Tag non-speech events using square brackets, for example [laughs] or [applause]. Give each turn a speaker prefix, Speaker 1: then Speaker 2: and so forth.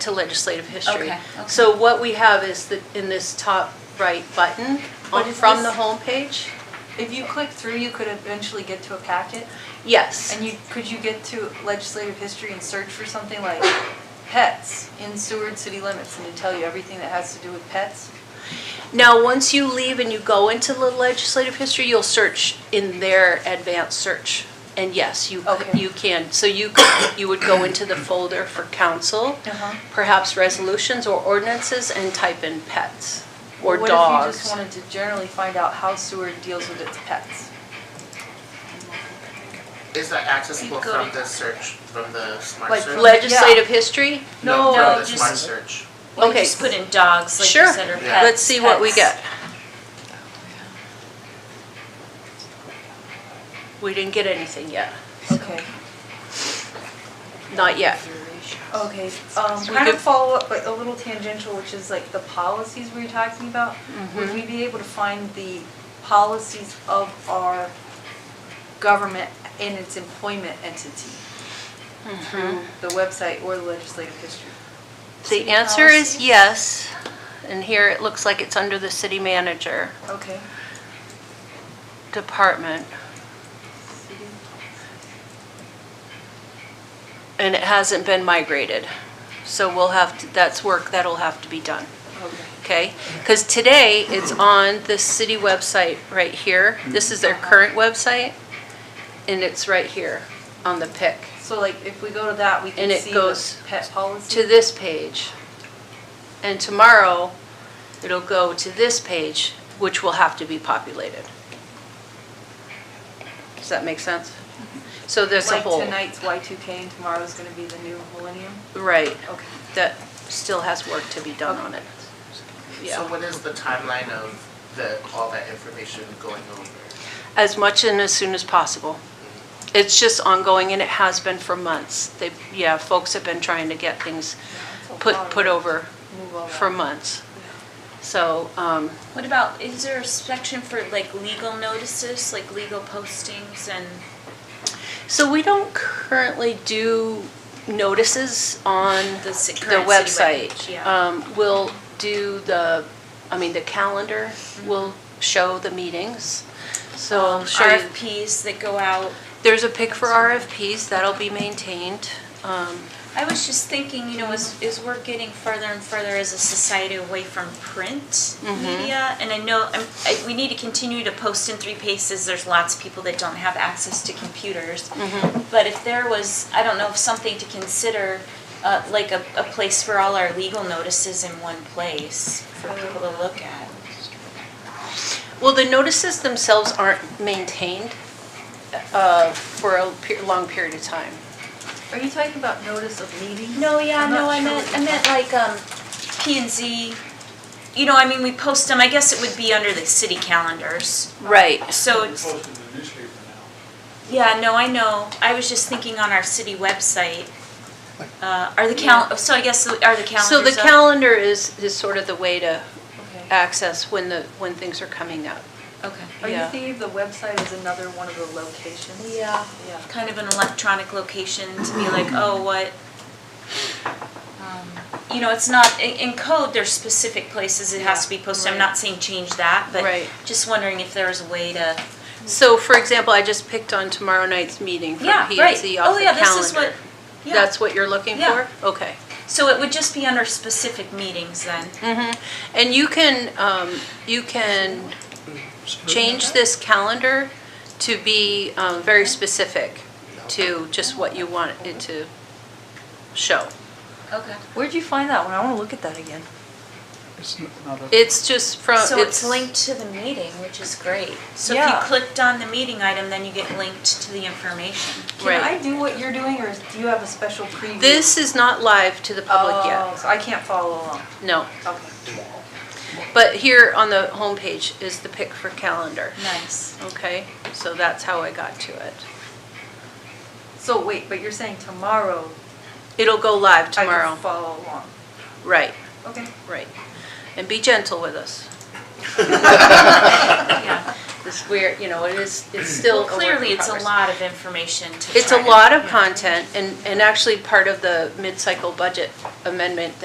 Speaker 1: to legislative history.
Speaker 2: Okay, okay.
Speaker 1: So what we have is that in this top right button
Speaker 2: What
Speaker 1: on,
Speaker 2: is
Speaker 1: from the
Speaker 2: this?
Speaker 1: homepage.
Speaker 2: If you click through, you could eventually get to a packet,
Speaker 1: Yes.
Speaker 2: and you, could you get to legislative history and search for something like pets in Seward city limits, and it'd tell you everything that has to do with pets?
Speaker 1: Now, once you leave and you go into the legislative history, you'll search in their advanced search. And yes, you,
Speaker 2: Okay.
Speaker 1: you can, so you, could- you would go into the folder for council,
Speaker 2: Uh-huh.
Speaker 1: perhaps resolutions or ordinances, and type in pets or
Speaker 2: What
Speaker 1: dogs.
Speaker 2: if you just wanted to generally find out how Seward deals with its pets?
Speaker 3: Is that accessible
Speaker 2: Go
Speaker 3: from
Speaker 2: to-
Speaker 3: the search, from the smart
Speaker 2: Like
Speaker 3: search?
Speaker 1: Legislative history?
Speaker 3: No,
Speaker 4: No,
Speaker 3: from the
Speaker 4: just-
Speaker 3: smart search.
Speaker 4: Well,
Speaker 1: Okay.
Speaker 4: just put in dogs, like you
Speaker 1: Sure.
Speaker 4: said, or pets.
Speaker 3: Yeah.
Speaker 1: Let's see what we
Speaker 4: pets.
Speaker 1: get. We didn't get anything yet,
Speaker 2: Okay.
Speaker 1: not yet.
Speaker 2: Okay, um,
Speaker 1: We
Speaker 2: kind of
Speaker 1: could-
Speaker 2: follow up, but a little tangential, which is like the policies we were talking about.
Speaker 1: Mm-hmm.
Speaker 2: Would we be able to find the policies of our government and its employment entity through the website or the legislative history?
Speaker 1: Mm-hmm. The
Speaker 4: Mm-hmm. City
Speaker 1: answer is
Speaker 4: policies?
Speaker 1: yes, and here it looks like it's under the city manager
Speaker 2: Okay.
Speaker 1: department, and it hasn't been migrated. So we'll have, to that's work that'll have to be done,
Speaker 2: Okay.
Speaker 1: okay? Because today, it's on the city website right here. This is their current website, and it's right here on the pick.
Speaker 2: So like if we go to that, we can
Speaker 1: And it
Speaker 2: see
Speaker 1: goes
Speaker 2: the pet policy?
Speaker 1: To this page. And tomorrow, it'll go to this page, which will have to be populated. Does that make sense? So there's a whole,
Speaker 2: Like tonight's Y2K and tomorrow's gonna be the new millennium?
Speaker 1: right,
Speaker 2: Okay.
Speaker 1: that still has work to be done on it.
Speaker 3: So
Speaker 1: Yeah,
Speaker 3: what is the timeline of the, all that information going over?
Speaker 1: as much and as soon as possible. It's just ongoing and it has been for months. They, yeah, folks have been trying to get things put, put over
Speaker 2: Move all
Speaker 1: for
Speaker 2: that.
Speaker 1: months. So, um,
Speaker 4: What about, is there a section for like legal notices, like legal postings and,
Speaker 1: So we don't currently do notices on
Speaker 4: The ci-
Speaker 1: the
Speaker 4: current
Speaker 1: website.
Speaker 4: city webpage, yeah.
Speaker 1: Um, We'll do the, I mean, the calendar will show the meetings. So Mm-hmm. I'll
Speaker 4: um,
Speaker 1: show you,
Speaker 4: RFPs that go out?
Speaker 1: there's a pick for RFPs, that'll be maintained. Um,
Speaker 4: I was just thinking, you know, as, as we're getting further and further as a society away from print media, and I know I'm, I, we need to continue to post in three paces. There's lots of people that don't have access to computers. But if there was, I don't know, if something to consider, uh, like a, a place for all our legal notices in one place for people to look at.
Speaker 1: Well, the notices themselves aren't maintained uh, for a pe- long period of time.
Speaker 2: Are you talking about notice of meeting?
Speaker 4: No, yeah,
Speaker 2: I'm
Speaker 4: no,
Speaker 2: not
Speaker 4: I
Speaker 2: sure
Speaker 4: meant,
Speaker 2: what
Speaker 4: I
Speaker 2: you
Speaker 4: meant like, um, P and Z, you know, I mean, we post them, I guess it would be under the city calendars.
Speaker 1: Right.
Speaker 4: So
Speaker 5: It's
Speaker 4: it's,
Speaker 5: posted in the newspaper now.
Speaker 4: yeah, no, I know, I was just thinking on our city website. Uh, are the cal, so I guess, the- are the calendars
Speaker 1: So the
Speaker 4: up?
Speaker 1: calendar is, is sort of the way to
Speaker 2: Okay.
Speaker 1: access when the, when things are coming up.
Speaker 4: Okay,
Speaker 2: Are you
Speaker 1: Yeah.
Speaker 2: thinking the website is another one of the locations?
Speaker 1: Yeah.
Speaker 2: Yeah.
Speaker 4: kind of an electronic location to be like, oh, what? Um, You know, it's not, in, in code, there's specific places it has to be posted, I'm not saying change that, but
Speaker 1: Right.
Speaker 4: just wondering if there was a way to.
Speaker 1: So for example, I just picked on tomorrow night's meeting from
Speaker 4: Yeah,
Speaker 1: P and
Speaker 4: right.
Speaker 1: Z off
Speaker 4: Oh,
Speaker 1: the
Speaker 4: yeah, this is
Speaker 1: calendar.
Speaker 4: what, yeah.
Speaker 1: That's what you're looking
Speaker 4: Yeah.
Speaker 1: for? Okay.
Speaker 4: So it would just be under specific meetings then?
Speaker 1: Mm-hmm. And you can, um, you can change this calendar to be, um, very specific to just what you want it to show.
Speaker 4: Okay.
Speaker 2: Where'd you find that one? I wanna look at that again.
Speaker 5: It's not a,
Speaker 1: It's just from,
Speaker 4: So it's linked to the meeting, which is great. So if you
Speaker 2: Yeah.
Speaker 4: clicked on the meeting item, then you get linked to the information.
Speaker 2: Can
Speaker 1: Right.
Speaker 2: I do what you're doing, or do you have a special preview?
Speaker 1: This is not live to the public
Speaker 2: Oh,
Speaker 1: yet.
Speaker 2: so I can't follow along.
Speaker 1: No.
Speaker 2: Okay.
Speaker 1: But here on the homepage is the pick for calendar. [laughs]
Speaker 4: Nice.
Speaker 1: Okay? So that's how I got to it.
Speaker 2: So wait, but you're saying tomorrow,
Speaker 1: It'll go live
Speaker 2: I
Speaker 1: tomorrow.
Speaker 2: can follow along?
Speaker 1: Right,
Speaker 2: Okay.
Speaker 1: right. And be gentle with us.
Speaker 4: Yeah.
Speaker 1: This where, you know, it is, it's still
Speaker 4: Well,
Speaker 1: a work in
Speaker 4: clearly, it's a
Speaker 1: progress.
Speaker 4: lot of information to
Speaker 1: It's a
Speaker 4: try to-
Speaker 1: lot of
Speaker 4: Yeah.
Speaker 1: content and, and actually part of the mid-cycle budget amendment